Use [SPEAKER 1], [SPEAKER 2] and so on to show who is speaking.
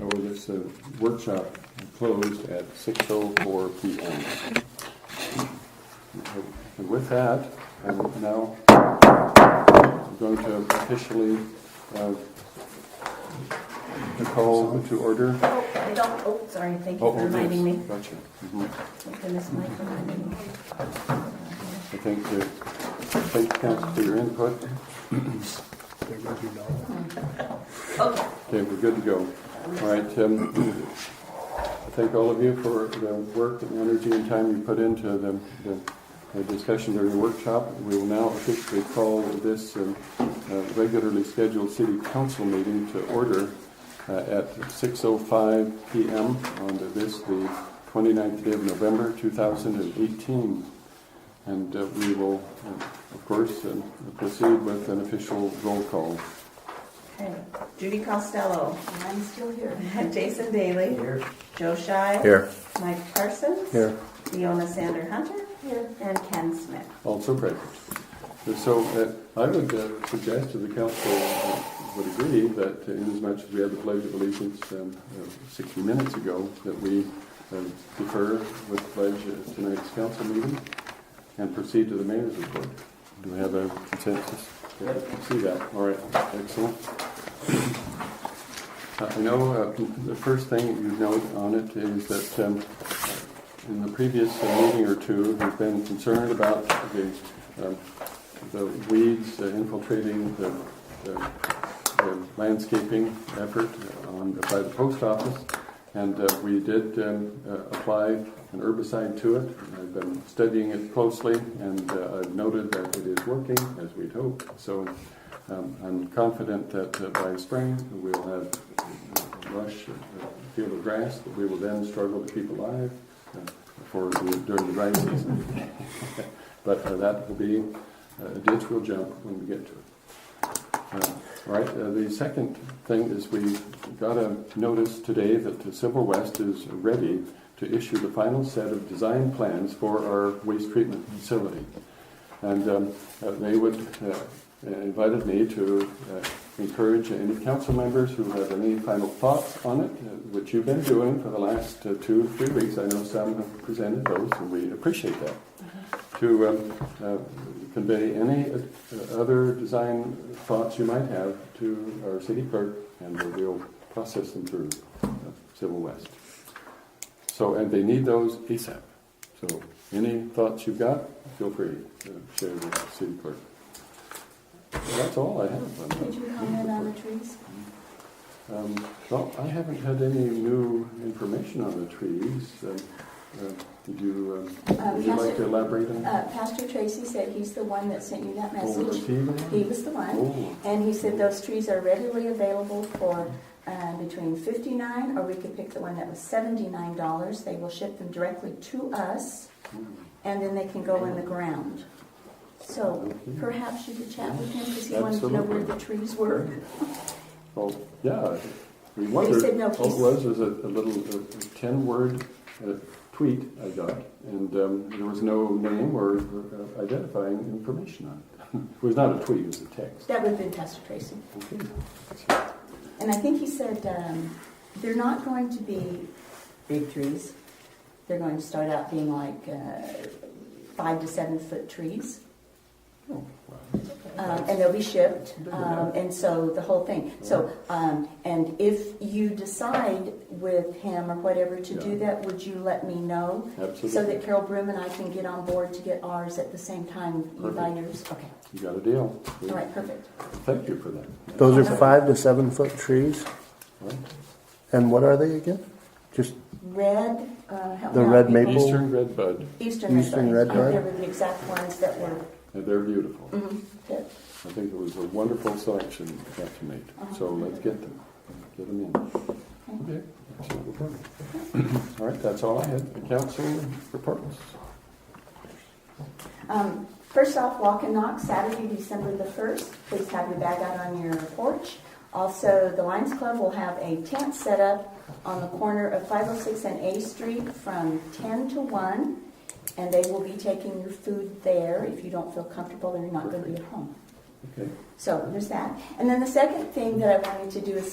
[SPEAKER 1] Or this uh, workshop closed at six oh four P M. And with that, I'm now going to officially uh, call to order.
[SPEAKER 2] Oh, I don't, oh, sorry, thank you
[SPEAKER 1] Oh,
[SPEAKER 2] for
[SPEAKER 1] oh, yes,
[SPEAKER 2] reminding me.
[SPEAKER 1] Gotcha. Mhm.
[SPEAKER 2] Thank goodness Mike reminded me.
[SPEAKER 1] I thank you, thank you council for your input.
[SPEAKER 2] Okay,
[SPEAKER 1] Okay, we're good to go. All right, um, I thank all of you for the work and energy and time you put into the, the- the discussion during the workshop. We will now officially call this um, uh, regularly scheduled city council meeting to order uh, at 6:05 PM on the- this, the 29th day of November, 2018. And uh, we will, uh, of course, uh, proceed with an official roll call.
[SPEAKER 2] okay. Judy Costello. I'm still here. Jason Daly. Here. Joe Shy.
[SPEAKER 3] Here.
[SPEAKER 2] Mike Parsons.
[SPEAKER 3] Here.
[SPEAKER 2] Leona Sander Hunter. Here. And Ken Smith.
[SPEAKER 1] also present. And So uh, I would uh, suggest to the council uh, would agree that uh, inasmuch as we had the pledge of allegiance um, uh, 60 minutes ago, that we um, defer with the pledge at tonight's council meeting and proceed to the mayor's report. Do we have a consensus? Yeah, I See that, all right, excellent. Uh, I know uh, the first thing that you note on it is that um, in the previous uh, meeting or two, we've been concerned about the, um, the weeds uh, infiltrating the, the the landscaping effort on, by the post office. And uh, we did um, uh, apply an herbicide to it. I've been studying it closely and uh, I've noted that it is working as we'd hoped. So um, I'm confident that uh, by spring, we'll have a lush uh, field of grass that we will then struggle to keep alive uh, for, the- during the dry season. But uh, that will be, uh, a ditch we'll jump when we get to it. Uh, All right, uh, the second thing is we got a notice today that the Civil West is ready to issue the final set of design plans for our waste treatment facility. And um, uh, they would, uh, invited me to uh, encourage any council members who have any final thoughts on it, uh, which you've been doing for the last uh, two, three weeks. I know some have presented those, and we appreciate that to um, uh, convey any uh, other design thoughts you might have to our city clerk, and we'll process them through uh, Civil West. So, and they need those ASAP. So, any thoughts you've got, feel free to share with the city clerk. That's all I have. on that.
[SPEAKER 4] Did you comment on the trees?
[SPEAKER 1] Um, Well, I haven't had any new information on the trees. Um, uh, Did you, um,
[SPEAKER 4] Uh,
[SPEAKER 1] would you like to
[SPEAKER 4] Pastor-
[SPEAKER 1] elaborate on that?
[SPEAKER 4] Uh, Pastor Tracy said he's the one that sent you that
[SPEAKER 1] Over
[SPEAKER 4] message.
[SPEAKER 1] to you.
[SPEAKER 4] He was the one.
[SPEAKER 1] Oh.
[SPEAKER 4] And he said those trees are readily available for uh, between fifty-nine, or we could pick the one that was seventy-nine dollars. They will ship them directly to us,
[SPEAKER 1] hmm.
[SPEAKER 4] and then they can go in the ground. So perhaps you could chat with him, because he wanted to know where the trees were.
[SPEAKER 1] Well, yeah, we
[SPEAKER 4] He
[SPEAKER 1] wondered, Oh,
[SPEAKER 4] said no,
[SPEAKER 1] all it
[SPEAKER 4] he's-
[SPEAKER 1] was was a a little ten-word uh, tweet I got, and um, there was no name or uh, identifying information on it. It was not a tweet, it was a text.
[SPEAKER 4] That would have been Pastor Tracy.
[SPEAKER 1] Okay.
[SPEAKER 4] And I think he said, um, they're not going to be big trees. They're going to start out being like, uh, five to seven foot trees.
[SPEAKER 1] Oh, wow.
[SPEAKER 4] Um, and they'll be shipped, um, and so the whole thing. So, um, and if you decide with him or whatever to do that, would you let me know? So
[SPEAKER 1] Absolutely,
[SPEAKER 4] that Carol Brim and I can get on board to get ours at the same time you buy yours? Okay,
[SPEAKER 1] you got a deal.
[SPEAKER 4] all right, perfect.
[SPEAKER 1] Thank you for that.
[SPEAKER 5] Those are five to seven foot trees.
[SPEAKER 1] Right.
[SPEAKER 5] And what are they again? Just
[SPEAKER 4] Red, uh, help
[SPEAKER 5] The
[SPEAKER 4] me out,
[SPEAKER 5] red
[SPEAKER 4] people.
[SPEAKER 5] maple?
[SPEAKER 1] Eastern red bud,
[SPEAKER 4] Eastern red
[SPEAKER 5] Eastern
[SPEAKER 4] vines.
[SPEAKER 5] red vine?
[SPEAKER 4] They were the exact ones that were,
[SPEAKER 1] and they're beautiful.
[SPEAKER 4] mhm, that-
[SPEAKER 1] I think it was a wonderful selection that you made, so let's get them, get them in. Okay, that's what we're doing. All right, that's all I had, the council reports.
[SPEAKER 4] Um, First off, walk and knock, Saturday, December the 1st. Please have your bag out on your porch. Also, the Lions Club will have a tent set up on the corner of 506 and A Street from 10 to 1, and they will be taking your food there. If you don't feel comfortable, then you're not going to be at home.
[SPEAKER 1] Okay.
[SPEAKER 4] So there's that. And then the second thing that I wanted to do is